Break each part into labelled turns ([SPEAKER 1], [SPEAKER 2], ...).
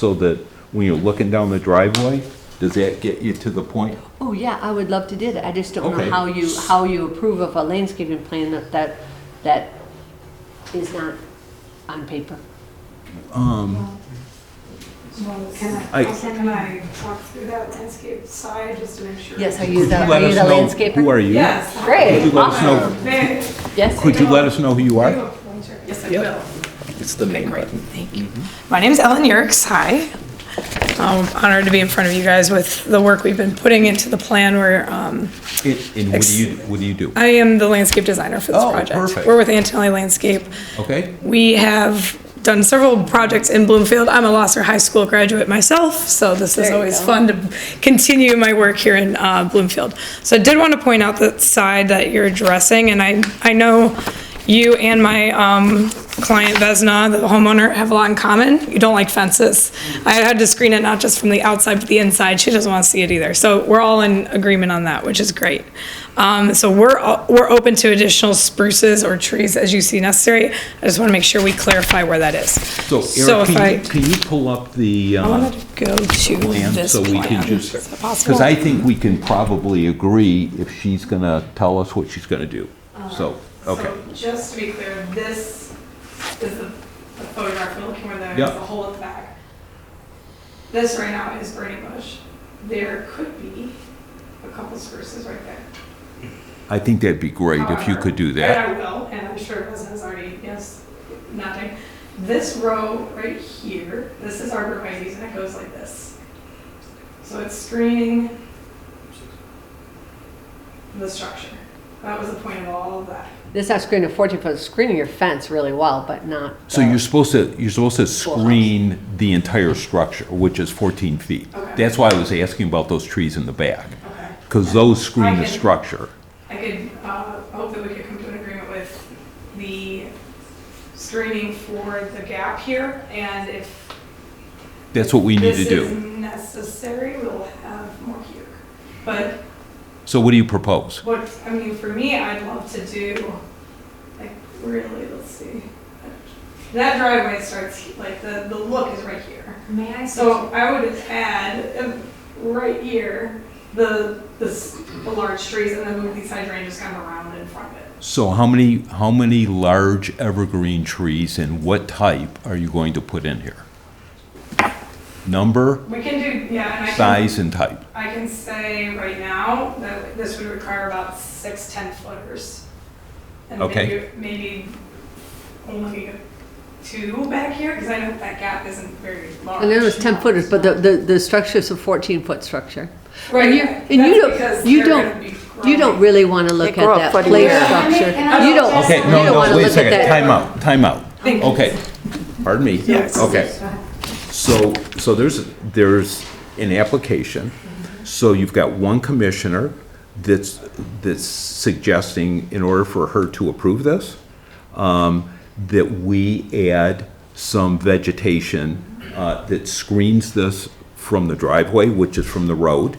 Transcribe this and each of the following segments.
[SPEAKER 1] so that when you're looking down the driveway, does that get you to the point?
[SPEAKER 2] Oh, yeah, I would love to do that. I just don't
[SPEAKER 1] Okay.
[SPEAKER 2] know how you, how you approve of a landscaping plan that, that, that is not on paper.
[SPEAKER 3] Well, Can I,
[SPEAKER 1] I-
[SPEAKER 3] can I walk through that landscape side just to make sure?
[SPEAKER 2] Yes, are
[SPEAKER 1] Could
[SPEAKER 2] you the,
[SPEAKER 1] let
[SPEAKER 2] are you
[SPEAKER 1] us
[SPEAKER 2] the
[SPEAKER 1] know
[SPEAKER 2] landscaper?
[SPEAKER 1] Who are you?
[SPEAKER 3] Yes.
[SPEAKER 1] Could you
[SPEAKER 2] Great,
[SPEAKER 1] let us
[SPEAKER 2] awesome.
[SPEAKER 1] know,
[SPEAKER 3] May
[SPEAKER 2] Yes.
[SPEAKER 1] could you let us know who you
[SPEAKER 3] I do
[SPEAKER 1] are?
[SPEAKER 3] a pointer? Yes, I
[SPEAKER 4] Yep.
[SPEAKER 3] will.
[SPEAKER 4] It's the main Thank you.
[SPEAKER 3] My name is Ellen Yerkes. Hi. Um, Honored to be in front of you guys with the work we've been putting into the plan. We're, um,
[SPEAKER 1] And and what do you, what do you do?
[SPEAKER 3] I am the landscape designer for this
[SPEAKER 1] Oh,
[SPEAKER 3] project.
[SPEAKER 1] perfect.
[SPEAKER 3] We're with Antonelli Landscape.
[SPEAKER 1] Okay?
[SPEAKER 3] We have done several projects in Bloomfield. I'm a Losser High School graduate myself, so this is
[SPEAKER 2] There you
[SPEAKER 3] always
[SPEAKER 2] go.
[SPEAKER 3] fun to continue my work here in uh, Bloomfield. So I did want to point out the side that you're addressing, and I, I know you and my um, client Vesna, the homeowner, have a lot in common. You don't like fences. I had to screen it not just from the outside, but the inside. She doesn't want to see it either. So we're all in agreement on that, which is great. Um, so we're, o- we're open to additional spruces or trees as you see necessary. I just want to make sure we clarify where that is.
[SPEAKER 1] So
[SPEAKER 3] So
[SPEAKER 1] Eric,
[SPEAKER 3] if
[SPEAKER 1] can
[SPEAKER 3] I,
[SPEAKER 1] you, can you pull up the,
[SPEAKER 3] I
[SPEAKER 1] uh,
[SPEAKER 3] wanted to go to
[SPEAKER 1] plan
[SPEAKER 3] this
[SPEAKER 1] so we can
[SPEAKER 3] plan.
[SPEAKER 1] just?
[SPEAKER 3] Is that
[SPEAKER 1] Because I
[SPEAKER 3] possible?
[SPEAKER 1] think we can probably agree if she's going to tell us what she's going to do. So, okay.
[SPEAKER 5] So just to be clear, this is the the photograph we're looking for there,
[SPEAKER 1] Yep.
[SPEAKER 5] it's the hole at the back. This right now is burning bush. There could be a couple spruces right there.
[SPEAKER 1] I think that'd be great if you could do that.
[SPEAKER 5] And I will, and I'm sure Resident's already, yes, nodding. This row right here, this is arborvitae's, and it goes like this. So it's screening the structure. That was the point of all of that.
[SPEAKER 2] This is not screening a 14-foot, screening your fence really well, but not.
[SPEAKER 1] So
[SPEAKER 2] the-
[SPEAKER 1] you're supposed to, you're supposed to
[SPEAKER 2] Schoolhouse.
[SPEAKER 1] screen the entire structure, which is 14 feet.
[SPEAKER 5] Okay.
[SPEAKER 1] That's why I was asking about those trees in the back,
[SPEAKER 5] Okay.
[SPEAKER 1] because those screen the
[SPEAKER 5] Okay.
[SPEAKER 1] structure.
[SPEAKER 5] I could, uh, hope that we could come to an agreement with the screening for the gap here, and if
[SPEAKER 1] That's what we need to
[SPEAKER 5] this is
[SPEAKER 1] do.
[SPEAKER 5] necessary, we'll have more here. But
[SPEAKER 1] So what do you propose?
[SPEAKER 5] what, I mean, for me, I'd love to do, like, really, let's see. That driveway starts, like, the, the look is right here.
[SPEAKER 3] May I
[SPEAKER 5] So I would add, um, right here, the, the, s- the large trees, and then move these hydrangeas kind of around in front of it.
[SPEAKER 1] So how many, how many large evergreen trees and what type are you going to put in here? Number,
[SPEAKER 5] We can do, yeah, and I can,
[SPEAKER 1] size, and type.
[SPEAKER 5] I can say right now that this would require about six 10 footers. And
[SPEAKER 1] Okay.
[SPEAKER 5] maybe, maybe only two back here, because I know that gap isn't very large.
[SPEAKER 2] And there was 10 footers, but the, the, the structure's a 14-foot structure.
[SPEAKER 5] Right,
[SPEAKER 2] and you-
[SPEAKER 5] that's
[SPEAKER 2] and you don't-
[SPEAKER 5] because
[SPEAKER 2] you
[SPEAKER 5] they're
[SPEAKER 2] don't-
[SPEAKER 5] gonna be
[SPEAKER 2] You
[SPEAKER 5] growing.
[SPEAKER 2] don't really want to look
[SPEAKER 6] They grow up
[SPEAKER 2] at that
[SPEAKER 6] foot a
[SPEAKER 2] play
[SPEAKER 6] year.
[SPEAKER 2] structure.
[SPEAKER 3] And I-
[SPEAKER 2] You don't,
[SPEAKER 3] and I-
[SPEAKER 1] Okay,
[SPEAKER 2] you
[SPEAKER 1] no,
[SPEAKER 2] don't want
[SPEAKER 1] no,
[SPEAKER 2] to
[SPEAKER 1] wait a
[SPEAKER 2] look at
[SPEAKER 1] second,
[SPEAKER 2] that.
[SPEAKER 1] time out, time out.
[SPEAKER 5] Thank you.
[SPEAKER 1] Okay, pardon me.
[SPEAKER 4] Yes.
[SPEAKER 1] Okay. So, so there's, there's an application, so you've got one commissioner that's, that's suggesting, in order for her to approve this, um, that we add some vegetation uh, that screens this from the driveway, which is from the road,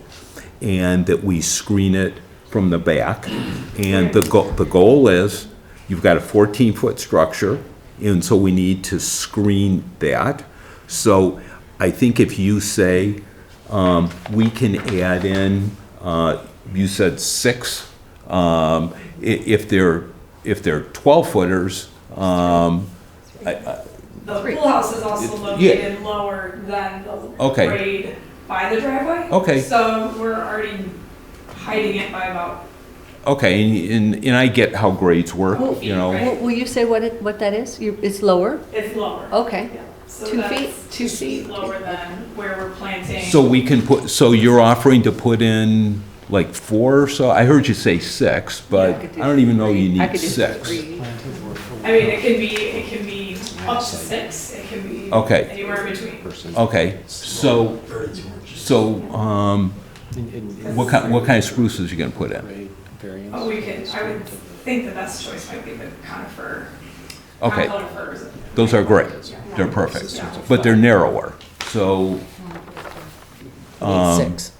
[SPEAKER 1] and that we screen it from the back. And the goal, the goal is, you've got a 14-foot structure, and so we need to screen that. So I think if you say, um, we can add in, uh, you said six, um, i- if they're, if they're 12-footers, um,
[SPEAKER 5] The pool house is also located lower than the
[SPEAKER 1] Okay.
[SPEAKER 5] grade by the driveway.
[SPEAKER 1] Okay.
[SPEAKER 5] So we're already hiding it by about,
[SPEAKER 1] okay, and, and- and I get how grades work, you know.
[SPEAKER 2] Will will you say what it, what that is? You- It's lower?
[SPEAKER 5] it's lower.
[SPEAKER 2] Okay.
[SPEAKER 5] Yeah. So
[SPEAKER 2] Two
[SPEAKER 5] that's
[SPEAKER 2] feet?
[SPEAKER 5] Two feet lower than where we're planting.
[SPEAKER 1] So we can put, so you're offering to put in like four or so? I heard you say six, but
[SPEAKER 2] could do
[SPEAKER 1] I don't even know you
[SPEAKER 2] three. I
[SPEAKER 1] need
[SPEAKER 2] could do
[SPEAKER 1] six.
[SPEAKER 2] three.
[SPEAKER 5] I mean, it can be, it can be up to six, it can be
[SPEAKER 1] Okay.
[SPEAKER 5] anywhere in between.
[SPEAKER 1] Okay, so, so, um, what kind, what kind of spruces you gonna put in?
[SPEAKER 5] Oh, we could, I would think the best choice might be the conifer.
[SPEAKER 1] Okay.
[SPEAKER 5] Conifer is-
[SPEAKER 1] Those are great. They're perfect, but they're narrower. So, Um,
[SPEAKER 4] Six.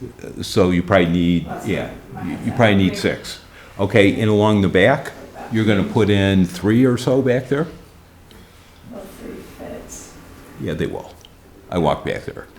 [SPEAKER 1] so you probably need, yeah, you- you probably need six. Okay, and along the back, you're gonna put in three or so back there?
[SPEAKER 5] Those three fits.
[SPEAKER 1] Yeah, they will. I walk back there.